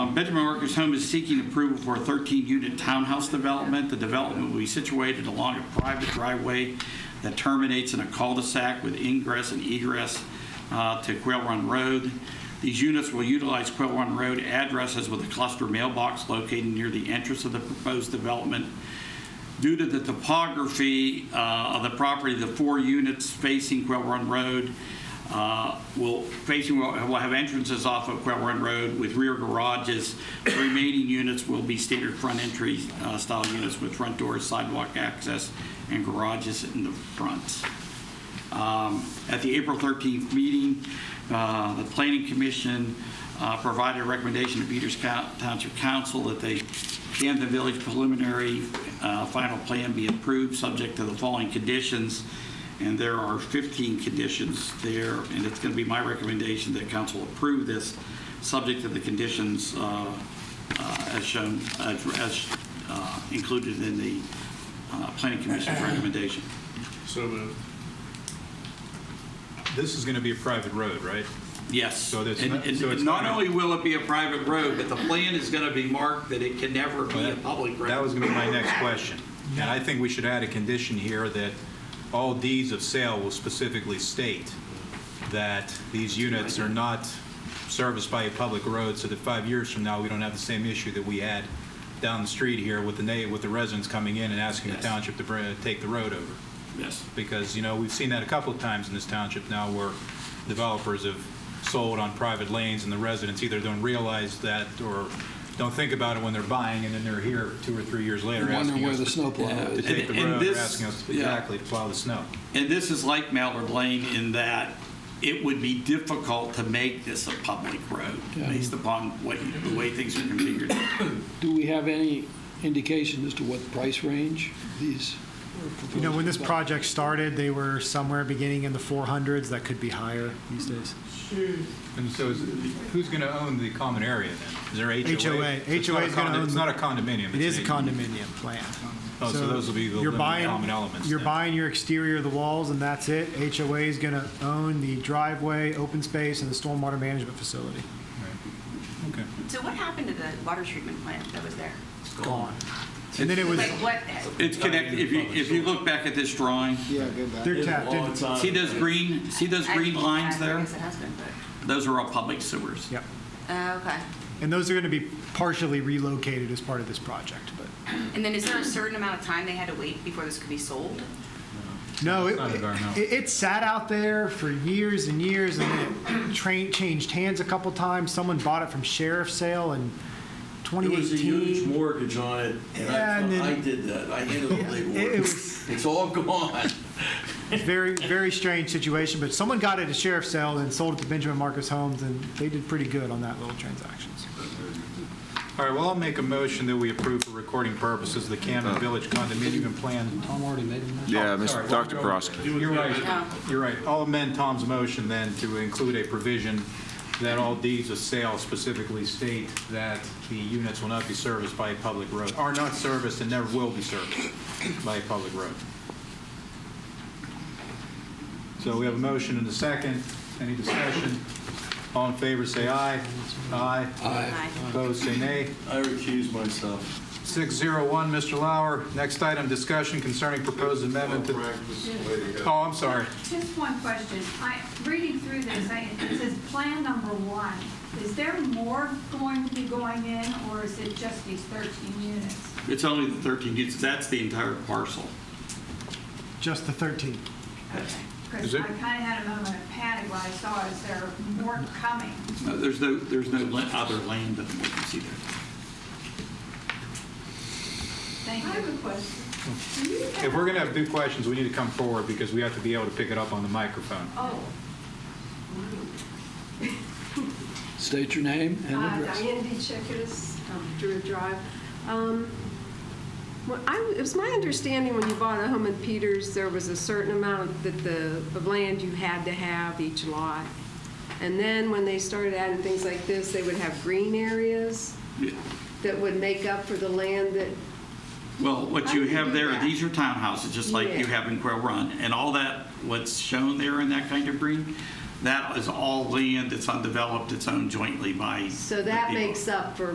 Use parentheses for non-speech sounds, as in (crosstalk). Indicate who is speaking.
Speaker 1: Uh, Benjamin Workers Home is seeking approval for a 13-unit townhouse development. The development will be situated along a private driveway that terminates in a cul-de-sac with ingress and egress uh, to Quail Run Road. These units will utilize Quail Run Road addresses with a cluster mailbox located near the entrance of the proposed development. Due to the topography uh, of the property, the four units facing Quail Run Road uh, will facing will will have entrances off of Quail Run Road with rear garages. The remaining units will be standard front entry uh, style units with front doors, sidewalk access, and garages in the front. Um, At the April 13th meeting, uh, the Planning Commission uh, provided a recommendation to Peters Coun- Township Council that they, Camden Village preliminary uh, final plan be approved, subject to the following conditions, and there are 15 conditions there, and it's going to be my recommendation that council approve this, subject to the conditions uh, uh, as shown, as as, uh, included in the uh, Planning Commission's recommendation.
Speaker 2: So moved.
Speaker 3: This is going to be a private road, right?
Speaker 1: Yes.
Speaker 3: So that's
Speaker 1: And-
Speaker 3: not-
Speaker 1: and
Speaker 3: so it's
Speaker 1: Not
Speaker 3: not-
Speaker 1: only will it be a private road, but the plan is going to be marked that it can never be a public road.
Speaker 3: That was going to be my next question. And I think we should add a condition here that all deeds of sale will specifically state that these units are not serviced by a public road, so that five years from now, we don't have the same issue that we had down the street here with the, na- with the residents coming in and asking the
Speaker 1: Yes.
Speaker 3: township to br- take the road over.
Speaker 1: Yes.
Speaker 3: because, you know, we've seen that a couple of times in this township now where developers have sold on private lanes and the residents either don't realize that or don't think about it when they're buying and then they're here two or three years later
Speaker 4: Wondering
Speaker 3: asking
Speaker 4: where the
Speaker 3: us
Speaker 4: snowplow
Speaker 3: to
Speaker 4: is.
Speaker 3: take the
Speaker 1: And- and
Speaker 3: road or
Speaker 1: this-
Speaker 3: asking us
Speaker 1: yeah.
Speaker 3: exactly to plow the snow.
Speaker 1: And this is like Mallard Lane in that it would be difficult to make this a public road
Speaker 4: Yeah.
Speaker 1: based upon what, the way things are configured.
Speaker 4: Do we have any indication as to what price range these are proposed?
Speaker 5: You know, when this
Speaker 4: to be?
Speaker 5: project started, they were somewhere beginning in the 400s. That could be higher these days.
Speaker 3: And so is, who's going to own the common area then? Is there HOA? So
Speaker 5: HOA.
Speaker 3: it's not
Speaker 5: HOA
Speaker 3: a
Speaker 5: is gonna
Speaker 3: condo-
Speaker 5: own
Speaker 3: It's
Speaker 5: the-
Speaker 3: not a condominium.
Speaker 5: It
Speaker 3: it's
Speaker 5: is a
Speaker 3: an-
Speaker 5: condominium plan.
Speaker 3: Oh, so those will be the
Speaker 5: you're
Speaker 3: limited
Speaker 5: buying-
Speaker 3: common elements
Speaker 5: You're
Speaker 3: then.
Speaker 5: buying your exterior of the walls, and that's it. HOA is going to own the driveway, open space, and the stormwater management facility.
Speaker 3: Okay.
Speaker 6: So what happened to the water treatment plant that was there?
Speaker 5: It's gone. And then it was,
Speaker 6: Like what,
Speaker 1: It's connected, if you, if you look back at this drawing,
Speaker 7: Yeah, go back.
Speaker 5: they're tapped in.
Speaker 1: see those green, see those
Speaker 6: I-
Speaker 1: green lines
Speaker 6: I
Speaker 1: there?
Speaker 6: guess it has been, but,
Speaker 1: Those are all public sewers.
Speaker 5: Yep.
Speaker 6: uh, okay.
Speaker 5: And those are going to be partially relocated as part of this project, but.
Speaker 6: And then is there a certain amount of time they had to wait before this could be sold?
Speaker 5: No,
Speaker 3: It's
Speaker 5: it,
Speaker 3: not environmental.
Speaker 5: it, it sat out there for years and years, and then it train, changed hands a couple times. Someone bought it from sheriff's sale in
Speaker 8: There
Speaker 5: 2018.
Speaker 8: was a huge mortgage on it, and
Speaker 5: Yeah, and then-
Speaker 8: I, I did that. I handled the
Speaker 5: (laughs) It- it
Speaker 8: paperwork.
Speaker 5: was-
Speaker 8: It's all gone.
Speaker 5: very, very strange situation, but someone got it at sheriff's sale and sold it to Benjamin Marcus Homes, and they did pretty good on that little transaction. so.
Speaker 3: All right, well, I'll make a motion that we approve for recording purposes the
Speaker 5: Uh,
Speaker 3: Camden Village condominium and plan
Speaker 4: Tom already made him.
Speaker 9: Yeah,
Speaker 3: Sorry,
Speaker 9: Mr. Dr.
Speaker 3: we'll go-
Speaker 9: Prosky.
Speaker 3: You're
Speaker 6: No.
Speaker 3: right, you're right. I'll amend Tom's motion then to include a provision that all deeds of sale specifically state that the units will not be serviced by a public road, are not serviced and never will be serviced by a public road. So we have a motion and a second. Any discussion? All in favor, say aye. Aye.
Speaker 6: Aye.
Speaker 3: Opposed, say nay.
Speaker 8: I recuse myself.
Speaker 3: 601, Mr. Lauer. Next item, discussion concerning proposed amendment to... Oh, I'm sorry.
Speaker 10: Just one question. I, reading through this, I, it says plan number one. Is there more going to be going in, or is it just these 13 units?
Speaker 1: It's only the 13 units, that's the entire parcel.
Speaker 5: Just the 13.
Speaker 3: Is
Speaker 10: Because I
Speaker 3: it-
Speaker 10: kind of had a moment of panic when I saw, is there more coming?
Speaker 1: No, There's no, there's no la- other land that we can see there.
Speaker 10: Thank you.
Speaker 3: Hmm. If we're going to have two questions, we need to come forward because we have to be able to pick it up on the microphone.
Speaker 10: Oh,
Speaker 4: State your name and
Speaker 11: Uh,
Speaker 4: address.
Speaker 11: Diane Dechekas, Druid Drive. Um, what I- It was my understanding when you bought a home in Peters, there was a certain amount that the, of land you had to have each lot. And then when they started adding things like this, they would have green areas
Speaker 1: Yeah.
Speaker 11: that would make up for the land that,
Speaker 1: Well, what
Speaker 11: How
Speaker 1: you
Speaker 11: do you
Speaker 1: have
Speaker 11: do
Speaker 1: there,
Speaker 11: that?
Speaker 1: these are townhouses, just like you
Speaker 11: Yeah.
Speaker 1: have in Quail Run, and all that, what's shown there in that kind of green, that is all land that's undeveloped, it's owned jointly by.
Speaker 11: so
Speaker 1: the
Speaker 11: that
Speaker 1: people.
Speaker 11: makes up for